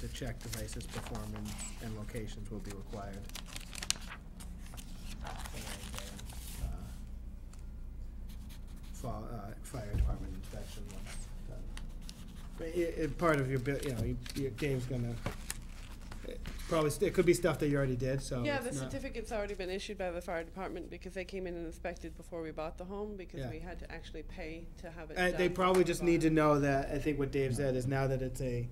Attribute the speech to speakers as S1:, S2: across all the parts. S1: to check devices' performance and locations will be required. And, uh, For, uh, fire department inspection once done. But i- i- part of your, bu- you know, you- your, Dave's gonna, it probably, st- it could be stuff that you already did, so.
S2: Yeah,
S1: Oh, it's
S2: the
S1: not-
S2: certificate's already been issued by the fire department because they came in and inspected before we bought the home because
S1: Yeah.
S2: we had to actually pay to have it
S1: Uh,
S2: done.
S1: they probably just need to know that, I think what Dave
S3: No.
S1: said is now that it's a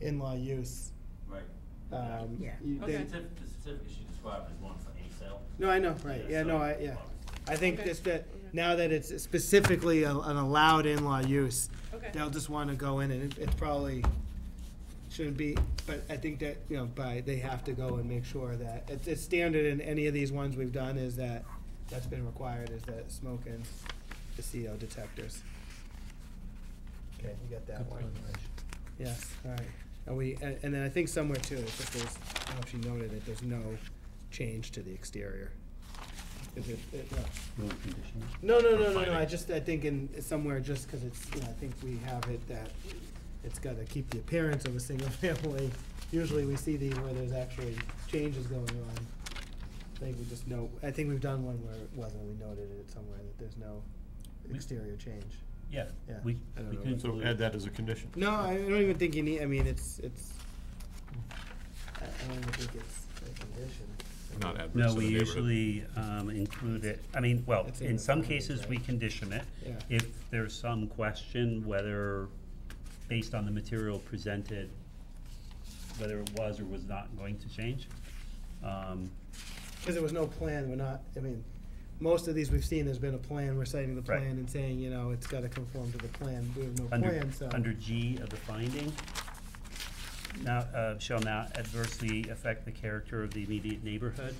S3: No.
S1: in-law use,
S4: Right.
S1: um.
S5: Yeah.
S1: you-
S4: The
S1: they-
S4: certificate, the certificate she described is one for any sale.
S1: No, I know, right, yeah, no,
S4: so
S1: I, yeah.
S4: obviously.
S1: I think
S2: Okay.
S1: just that,
S2: Okay.
S1: now that it's specifically a- an allowed in-law use,
S2: Okay.
S1: they'll just wanna go in and it- it probably shouldn't be, but I think that, you know, by, they have to go and make sure that, it's, it's standard in any of these ones we've done is that, that's been required, is that smoke and the CO detectors. Okay, you got that
S3: Good
S1: one.
S3: presentation.
S1: Yes, all right. And we, and, and then I think somewhere too, it's just there's, I don't know if you noted it, there's no change to the exterior. Is it, it,
S3: No conditions.
S1: no, no, no, no, no, I just, I think in, somewhere, just because it's, you know, I think we have it that it's gotta keep the appearance of a single family. Usually we see these where there's actually changes going on. I think we just know, I think we've done one where it wasn't, we noted it somewhere that there's no exterior change.
S3: Yeah,
S1: Yeah.
S3: we,
S1: I don't
S3: we
S1: know.
S3: can.
S6: So
S3: include-
S6: add that as a condition.
S1: No, I don't even think you need, I mean, it's, it's, I I don't even think it's a condition.
S6: Not adverse to the
S3: No, we
S6: neighborhood.
S3: usually um, include it, I mean, well,
S1: It's in
S3: in
S1: the
S3: some
S1: findings,
S3: cases, we
S1: right?
S3: condition it.
S1: Yeah.
S3: If there's some question whether, based on the material presented, whether it was or was not going to change. Um,
S1: Because there was no plan, we're not, I mean, most of these we've seen, there's been a plan, we're citing the
S3: Right.
S1: plan and saying, you know, it's gotta conform to the plan, we have no
S3: Under,
S1: plan, so.
S3: under G of the finding, now, uh, shall not adversely affect the character of the immediate neighborhood.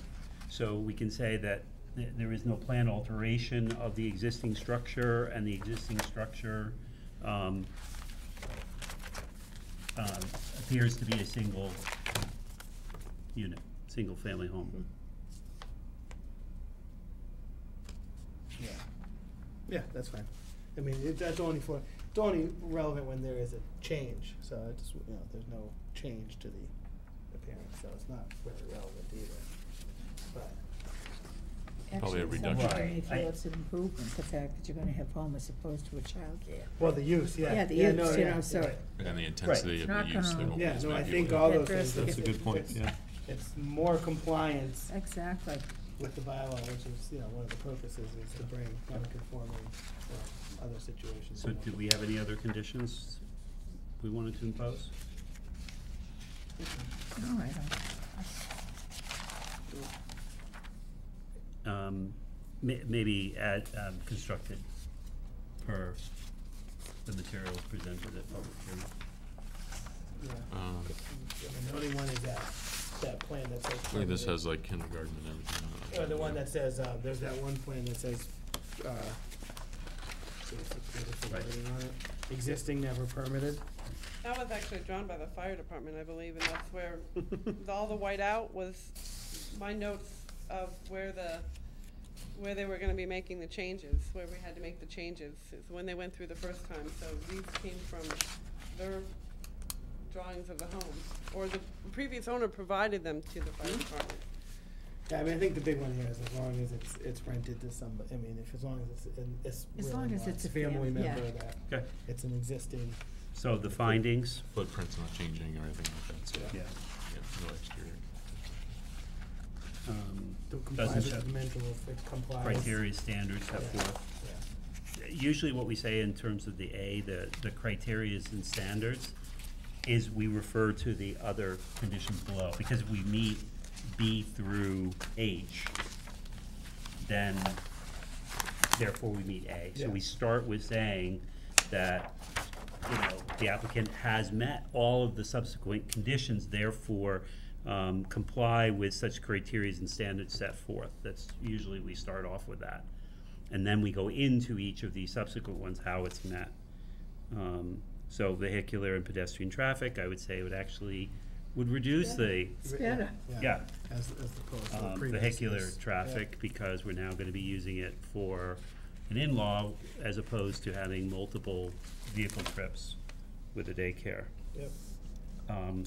S3: So we can say that th- there is no plan alteration of the existing structure and the existing structure, um, um, appears to be a single unit, single-family home.
S1: Yeah. Yeah, that's fine. I mean, it, that's only for, it's only relevant when there is a change, so I just, you know, there's no change to the appearance, so it's not really relevant either. But,
S6: Probably a
S5: Actually,
S6: reduction.
S5: somebody may
S3: Right.
S5: feel it's an improvement, the fact that you're gonna have home as opposed to a childcare.
S1: well, the use, yeah.
S5: Yeah, the
S1: no,
S5: use, you
S1: yeah,
S5: know, so,
S1: right.
S6: And the intensity of the
S5: Not
S6: use. they
S5: gonna-
S6: won't
S1: Yeah,
S6: use
S1: no, I
S6: maybe
S1: think
S6: with-
S1: all those
S5: That
S1: things.
S5: first
S6: That's a
S5: gets-
S6: good point,
S1: It's-
S6: yeah.
S1: It's more compliance
S5: exactly.
S1: with the bylaw, which is, you know, one of the purposes is to bring non-conforming or other situations.
S3: So do we have any other conditions we wanted to impose?
S5: No, I don't.
S3: um, ma- maybe add, um, constructed per the materials presented at public hearing.
S1: Yeah.
S6: Um,
S1: And The only one is that, that plan that says.
S6: I think this has like kindergarten and everything. on it.
S1: Or the one that says, uh, there's that one plan that says, uh, see if it's beautiful
S3: Right.
S1: writing on it. existing never permitted.
S2: That was actually drawn by the fire department, I believe, and that's where the- all the white out was my notes of where the, where they were gonna be making the changes, where we had to make the changes, is when they went through the first time, so these came from their drawings of the home, or the previous owner provided them to the
S1: Hmm?
S2: fire department.
S1: Yeah, I mean, I think the big one here is as long as it's, it's rented to somebody, I mean, if, as long as it's, in- it's.
S5: As
S1: really
S5: long as
S1: not
S5: it's a
S1: Family
S5: fam- yeah.
S1: member that,
S3: Okay,
S1: it's an existing,
S3: so the findings,
S6: Footprint's not changing or anything like that, so.
S1: Yeah.
S3: yeah,
S6: Yeah, no exterior.
S3: um,
S1: to comply
S3: doesn't
S1: with the
S3: show
S1: mental, it complies.
S3: criteria, standards, set forth.
S1: Yeah.
S3: Usually what we say in terms of the A, the, the criteria and standards, is we refer to the other conditions below, because we meet B through H, then therefore we meet A. So we
S1: Yeah.
S3: start with saying that, you know, the applicant has met all of the subsequent conditions, therefore um, comply with such criteria and standards set forth. That's usually, we start off with that. And then we go into each of the subsequent ones, how it's met. Um, So vehicular and pedestrian traffic, I would say, would actually, would reduce the,
S5: It's better.
S3: yeah,
S1: As, as opposed to the
S3: um,
S1: previous.
S3: vehicular
S1: is-
S3: traffic, because we're now gonna be using it for an in-law as opposed to having multiple vehicle trips with a daycare.
S1: yeah, Yep.
S3: Um,